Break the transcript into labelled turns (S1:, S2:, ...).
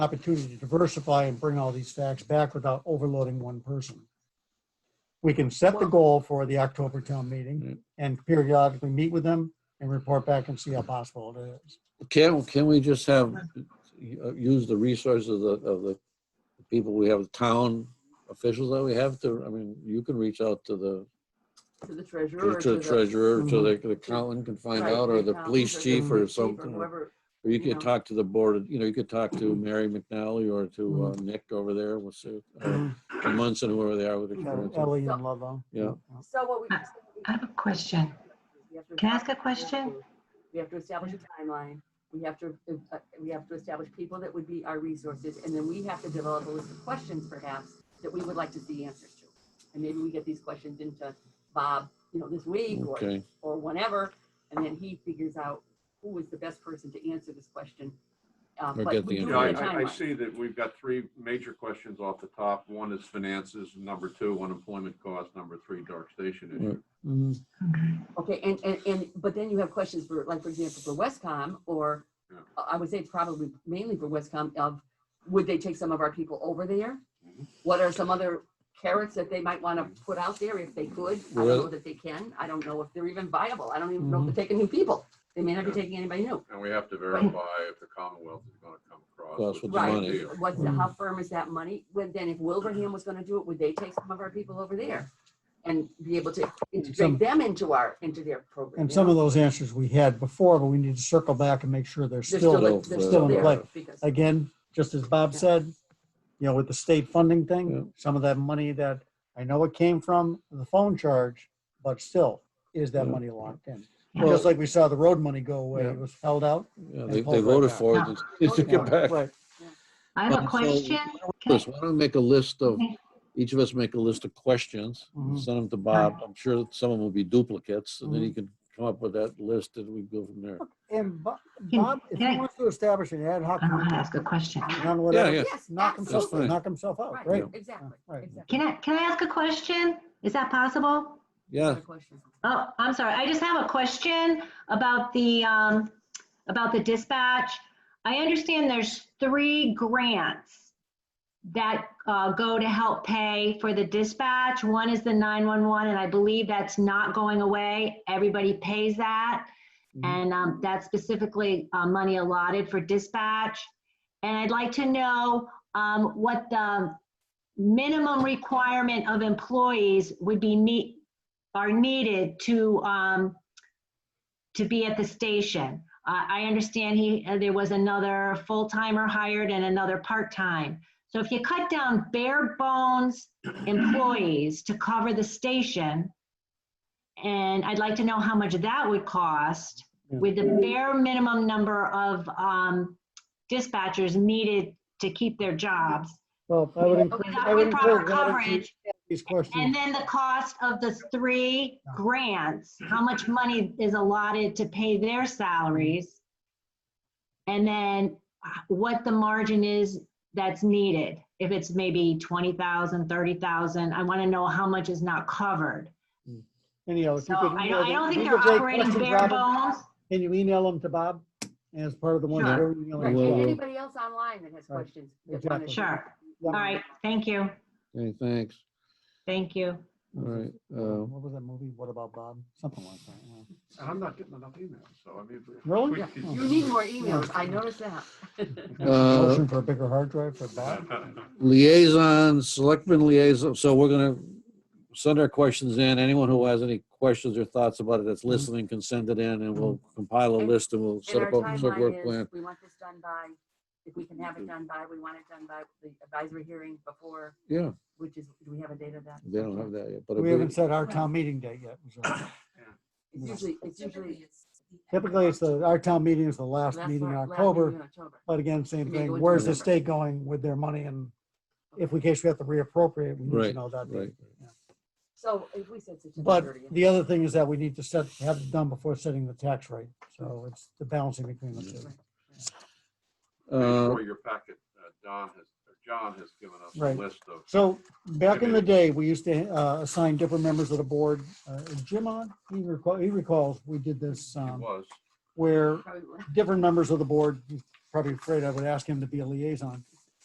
S1: opportunity to diversify and bring all these facts back without overloading one person. We can set the goal for the October town meeting and periodically meet with them and report back and see how possible it is.
S2: Can, can we just have, uh, use the resources of the, of the people we have, town officials that we have to, I mean, you can reach out to the
S3: to the treasurer. or
S2: to the treasurer, to
S1: Mm-hmm.
S2: the the accountant can find
S3: right,
S2: out, or the
S3: accountant
S2: police chief or
S3: police chief
S2: something. Or
S3: whoever.
S2: you
S3: you
S2: could
S3: know.
S2: talk to the board, you know, you could talk to Mary McNally or to uh,
S1: Mm-hmm.
S2: Nick over there, we'll see. or to Munson, whoever they are with the.
S1: Ellie and Ludlow.
S2: Yeah.
S3: So what we.
S4: I- Uh, I have a question.
S3: we have to
S4: Can I ask
S3: establish-
S4: a question?
S3: We have to establish a timeline. We have to, uh, we have to establish people that would be our resources. And then we have to develop a list of questions perhaps that we would like to see answers to. And maybe we get these questions into Bob, you know, this week or,
S2: Okay,
S3: or whenever. And then he figures out who is the best person to answer this question. Uh,
S2: Or
S3: but
S2: get
S3: we
S2: the
S3: do
S5: Yeah, I,
S3: need a
S5: I- I
S3: timeline.
S5: see that we've got three major questions off the top. One is finances, number two, unemployment cost, number three, dark station issue.
S1: Mhm.
S4: Okay.
S3: Okay, and, and, and, but then you have questions for, like, for example, for Westcom, or
S5: Yeah.
S3: uh, I would say probably mainly for Westcom of, would they take some of our people over there?
S5: Mhm.
S3: What are some other carrots that they might want to put out there if they could? I don't
S2: Well-
S3: know that they can. I don't know if they're even viable. I don't even know if they're taking new people. They may not be
S5: Yeah.
S3: taking anybody new.
S5: And we have to verify if the Commonwealth is gonna come
S2: Well,
S5: across.
S2: that's
S5: with
S2: what the
S5: a
S2: money
S3: Right,
S2: is.
S5: deal.
S3: what's, the- how firm is that money? Well, then if Wilbraham was gonna do it, would they take some of our people over there? And be able to
S1: Some-
S3: integrate them into our, into their program?
S1: And
S3: you
S1: some
S3: know?
S1: of those answers we had before, but we need to circle back and make sure they're
S3: They're
S1: still,
S2: still-
S3: like- they're
S2: still
S3: still
S1: in
S3: there
S1: play.
S3: because-
S1: again, just as Bob said, you know, with the state funding
S2: Yeah.
S1: thing, some of that money that, I know it came from the phone charge, but still, is that
S2: Yeah.
S1: money locked in?
S4: Yeah.
S1: Just like we saw the road money go away,
S2: Yeah.
S1: it was held out.
S2: yeah,
S1: And
S2: they,
S1: pull
S2: they
S1: right
S2: voted
S1: back.
S2: for it, they should get back.
S1: Right.
S4: I have
S2: Um,
S4: a
S2: so-
S4: question. Can I-
S2: Chris, why don't we make a list of,
S4: Okay.
S2: each of us make a list of questions,
S1: Mhm.
S2: send them to Bob. I'm sure that some of them will be duplicates, and then he
S3: Mm-hmm.
S1: Mhm.
S2: can come up with that list and we go from there.
S1: And Bo-
S4: Can-
S1: Bob, if
S4: can
S1: he
S4: I-
S1: wants to establish an ad hoc
S4: I don't know how to
S1: committee
S4: ask a question.
S1: on whatever,
S2: yeah.
S3: Yes,
S1: knock himself,
S2: absolutely.
S1: knock himself out,
S3: Right,
S1: right?
S3: exactly,
S1: Right.
S3: exactly.
S4: Can I, can I ask a question? Is that possible?
S2: Yeah,
S3: Good question.
S4: Oh, I'm sorry. I just have a question about the, um, about the dispatch. I understand there's three grants that, uh, go to help pay for the dispatch. One is the 911, and I believe that's not going away. Everybody pays that.
S2: Mhm.
S4: And, um, that's specifically, uh, money allotted for dispatch. And I'd like to know, um, what the minimum requirement of employees would be need, are needed to, um, to be at the station. I, I understand he, uh, there was another full-timer hired and another part-time. So if you cut down bare bones employees to cover the station, and I'd like to know how much that would cost with the bare minimum number of, um, dispatchers needed to keep their jobs.
S1: Well, I would encourage, I would
S4: Without proper
S1: encourage that if you- these
S4: coverage, and
S1: questions.
S4: then the cost of the three grants, how much money is allotted to pay their salaries? And then uh, what the margin is that's needed, if it's maybe 20,000, 30,000, I want to know how much is not covered.
S1: Anyhow, Oh, if
S4: So
S1: you could
S4: I
S1: email
S4: don't, I don't
S1: them-
S4: think
S1: if
S4: they're
S1: you could take
S4: operating
S1: questions,
S4: bare
S1: Robin,
S4: bones.
S1: Can you email them to Bob as part of the one?
S4: Sure.
S1: that we're emailing
S3: Right,
S1: as
S2: Well,
S3: and
S1: well?
S3: anybody else online that has
S1: Right,
S3: questions? that wanna-
S1: exactly.
S4: Sure,
S1: Yeah.
S4: all right, thank you,
S2: okay, thanks.
S4: thank you.
S2: All right,
S1: Uh,
S2: uh,
S3: Mm-hmm.
S1: What was that movie? What about Bob? Something like that. yeah.
S5: And I'm not getting enough emails, so I mean. if
S1: Really?
S5: we
S1: Yeah.
S5: could-
S3: You need more e- emails, I noticed that.
S2: Uh,
S1: Motion for a bigger hard drive for Bob?
S2: liaison, selectmen liaison, so we're gonna send our questions in. Anyone who has any questions or thoughts about it that's listening can send it in, and we'll compile a
S3: Mm-hmm. And-
S2: list and we'll
S3: And
S2: set
S3: our
S2: up open source work
S3: timeline
S2: plan. Mm-hmm.
S3: is, we want this done by, if we can have it done by, we want it done by the advisory hearing before,
S2: Yeah,
S3: which is, do we have a date of that?
S2: they don't have that yet, but
S1: We
S2: it'll
S1: haven't
S2: be-
S1: set our town meeting date yet. so.
S3: It's usually, it's usually.
S1: Typically, it's the, our town meeting is the last
S3: last
S1: meeting in
S3: one- last
S1: October,
S3: meeting in October.
S1: but again, same
S3: Maybe go
S1: thing.
S3: into
S1: Where's the
S3: November.
S1: state going with their money? And if we, in case we have to reappropriate, we need to
S2: Right,
S1: know that.
S2: right.
S1: date.
S3: So if we said September
S1: But
S3: thirtieth.
S1: the other thing is that we need to set, have it done before setting the tax rate. So it's the balancing between the two.
S2: Uh,
S5: For your packet, uh, Don has, or John has given us
S1: Right.
S5: a list of.
S1: So back in the day, we used to uh, assign different members of the board. Uh, is Jim on, he recall, he recalls, we did this
S5: It
S1: um,
S5: was.
S1: where different members of the board probably afraid I would ask him to be a liaison.